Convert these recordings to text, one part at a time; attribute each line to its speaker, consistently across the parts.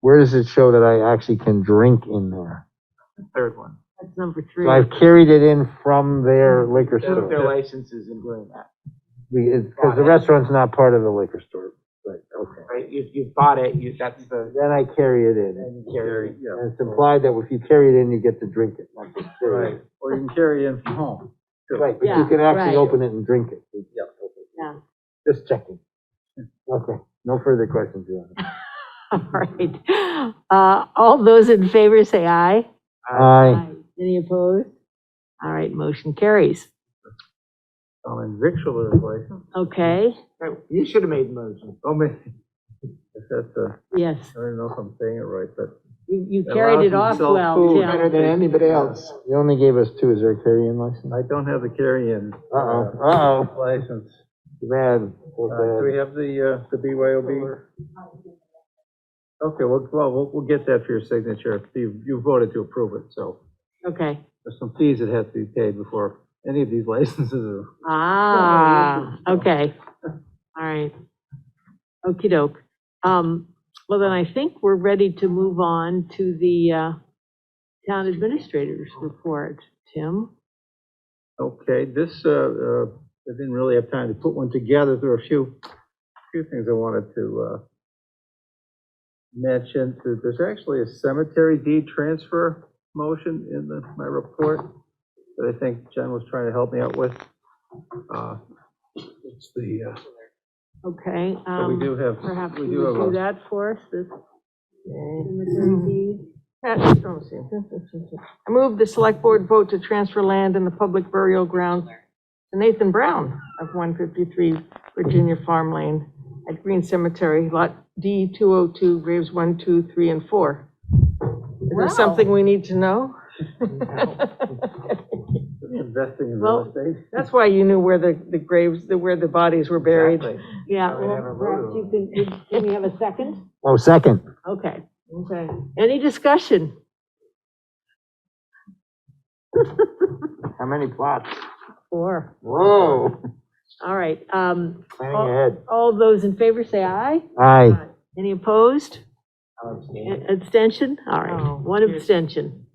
Speaker 1: where does it show that I actually can drink in there?
Speaker 2: the third one.
Speaker 3: That's number three.
Speaker 1: So I've carried it in from their liquor
Speaker 2: Shows their
Speaker 1: store.
Speaker 2: licenses in doing that,
Speaker 1: Because the restaurant's not part of the liquor store, but, okay.
Speaker 2: right? You, you bought it, you, that's the,
Speaker 1: Then I carry it in.
Speaker 2: then you carry.
Speaker 1: And it's implied that if you carry it in, you get to drink it. not to carry
Speaker 4: Right,
Speaker 1: it.
Speaker 4: or you can carry in from home.
Speaker 1: Right, but you
Speaker 3: Yeah,
Speaker 1: can actually
Speaker 3: right.
Speaker 1: open it and drink it.
Speaker 4: Yeah.
Speaker 3: Yeah,
Speaker 1: Just checking. Okay, no further questions, Your Honor.
Speaker 3: all right. Uh, all those in favor say aye.
Speaker 1: Aye.
Speaker 3: Any opposed? All right, motion carries.
Speaker 4: Oh, and victual is like,
Speaker 3: Okay,
Speaker 2: Right, You should have made the motion.
Speaker 4: oh, me. If that's a,
Speaker 3: yes,
Speaker 4: I don't know if I'm saying it right, but.
Speaker 3: you, you carried it
Speaker 4: Allows
Speaker 3: off
Speaker 4: himself
Speaker 3: well,
Speaker 4: food
Speaker 3: Tim.
Speaker 4: than anybody else.
Speaker 1: You only gave us two. Is there a carry-in license?
Speaker 4: I don't have the carry-in. uh,
Speaker 1: Uh-oh, uh-oh.
Speaker 4: License.
Speaker 1: Too bad.
Speaker 4: Uh, Do we
Speaker 1: So
Speaker 4: have the, uh, the BYOB? Okay, well, well, we'll, we'll get that for your signature. You, you voted to approve it, so
Speaker 3: Okay,
Speaker 4: there's some fees that have to be paid before any of these licenses are.
Speaker 3: ah, okay, all right. Okey doke. Um, well then I think we're ready to move on to the, uh, town administrator's report, Tim.
Speaker 4: Okay, this, uh, uh, I didn't really have time to put one together. There are a few, few things I wanted to uh, mention. There- There's actually a cemetery deed transfer motion in the- my report that I think Jen was trying to help me out with. Uh, It's the, uh,
Speaker 3: Okay,
Speaker 4: so we do
Speaker 3: um,
Speaker 4: have,
Speaker 3: perhaps
Speaker 4: we
Speaker 3: you
Speaker 4: do
Speaker 3: would do
Speaker 4: have a
Speaker 3: that for us, this
Speaker 5: Uh, oh, see. I move the select board vote to transfer land in the public burial ground to Nathan Brown of 153 Virginia Farm Lane at Green Cemetery, Lot D 202, graves 1, 2, 3, and 4. Is there something we need to know?
Speaker 4: investing in
Speaker 5: Well,
Speaker 4: real estate.
Speaker 5: That's why you knew where the, the graves, the- where the bodies were buried.
Speaker 4: Exactly.
Speaker 3: Yeah,
Speaker 4: I would have
Speaker 3: well,
Speaker 4: a
Speaker 3: perhaps you can, can- can we have a second?
Speaker 1: Oh, second.
Speaker 3: Okay,
Speaker 5: Okay.
Speaker 3: any discussion?
Speaker 1: How many plots?
Speaker 3: Four,
Speaker 1: Whoa,
Speaker 3: all right, um,
Speaker 1: planning ahead.
Speaker 3: all those in favor say aye.
Speaker 1: Aye.
Speaker 3: Any opposed? A- Abstention? All
Speaker 5: Oh,
Speaker 3: right, one
Speaker 5: yes.
Speaker 3: abstention,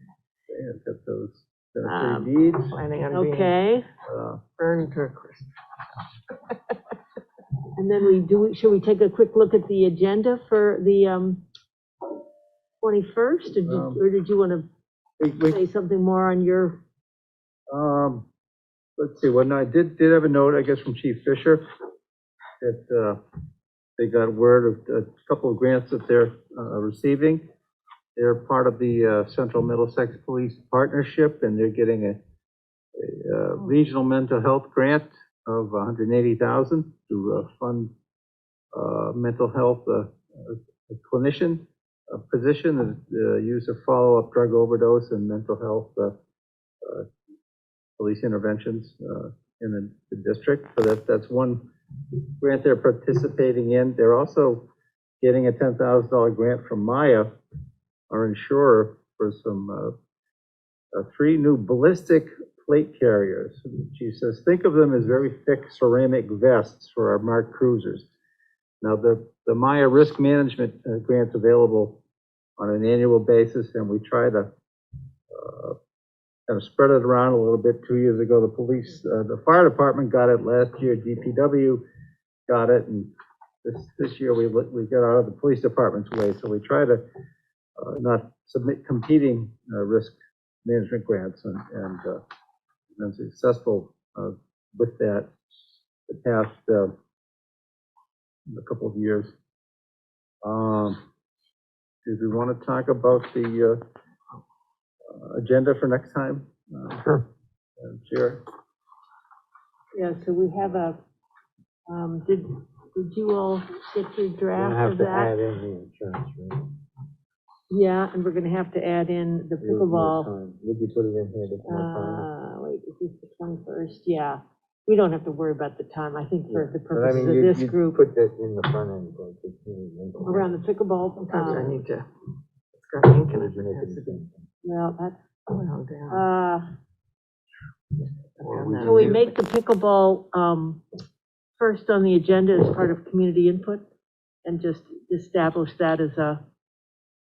Speaker 4: Yeah, got those
Speaker 3: Um,
Speaker 4: cemetery deeds.
Speaker 5: Planning on being
Speaker 3: okay.
Speaker 4: Uh,
Speaker 5: burned to a crisp.
Speaker 3: And then we do, should we take a quick look at the agenda for the, um, 21st? Or did,
Speaker 4: Um,
Speaker 3: or did you want
Speaker 4: we-
Speaker 3: to
Speaker 4: we-
Speaker 3: say something more on your,
Speaker 4: Um, let's see, well, no, I did, did have a note, I guess, from Chief Fisher, that, uh, they got word of a couple of grants that they're, uh, receiving. They're part of the, uh, Central Middlesex Police Partnership, and they're getting a, a, uh, regional mental health grant of a hundred and eighty thousand to, uh, fund, uh, mental health, uh, uh, clinician, uh position, of the use of follow-up drug overdose and mental health, uh, police interventions uh, in the- the district. So that, that's one grant they're participating in. They're also getting a $10,000 grant from Maya, our insurer, for some, uh, uh, three new ballistic plate carriers. She says, think of them as very thick ceramic vests for our marked cruisers. Now, the, the Maya risk management uh, grant's available on an annual basis, and we try to kind of spread it around a little bit. Two years ago, the police, uh, the fire department got it last year, DPW got it, and this, this year we, let- we got out of the police department's way, so we try to, uh, not submit competing, uh, risk management grants and, and, uh, been successful, uh, with that the past, uh, a couple of years. Um, did we want to talk about the, uh, uh, agenda for next time? uh,
Speaker 1: Sure.
Speaker 4: Madam Chair?
Speaker 3: yeah, so we have a, um, did, did you all get your
Speaker 1: You don't
Speaker 3: draft
Speaker 1: have
Speaker 3: of
Speaker 1: to
Speaker 3: that?
Speaker 1: add in the insurance, right?
Speaker 3: Yeah, and we're gonna have to add in the
Speaker 1: Give us more
Speaker 3: pickleball,
Speaker 1: time. Would you put it in here? to more time?
Speaker 3: uh, wait, is this the 21st? Yeah, we don't have to worry about the time, I think uh, for the
Speaker 1: But I
Speaker 3: purposes
Speaker 1: mean,
Speaker 3: of
Speaker 1: you-
Speaker 3: this
Speaker 1: you
Speaker 3: group,
Speaker 1: Put that in the front end, like, it's really mental.
Speaker 3: around the pickleball.
Speaker 5: Sometimes I
Speaker 3: um,
Speaker 5: need to, it's got ink in
Speaker 1: Would
Speaker 5: it.
Speaker 1: you make
Speaker 5: It
Speaker 1: it
Speaker 5: has to be
Speaker 1: the
Speaker 3: Well, that's,
Speaker 5: wound down.
Speaker 3: uh,
Speaker 1: or
Speaker 5: I've
Speaker 1: we
Speaker 5: done
Speaker 3: Can we
Speaker 5: that.
Speaker 3: make the pickleball um, first on the agenda as part of community input? And just establish that as a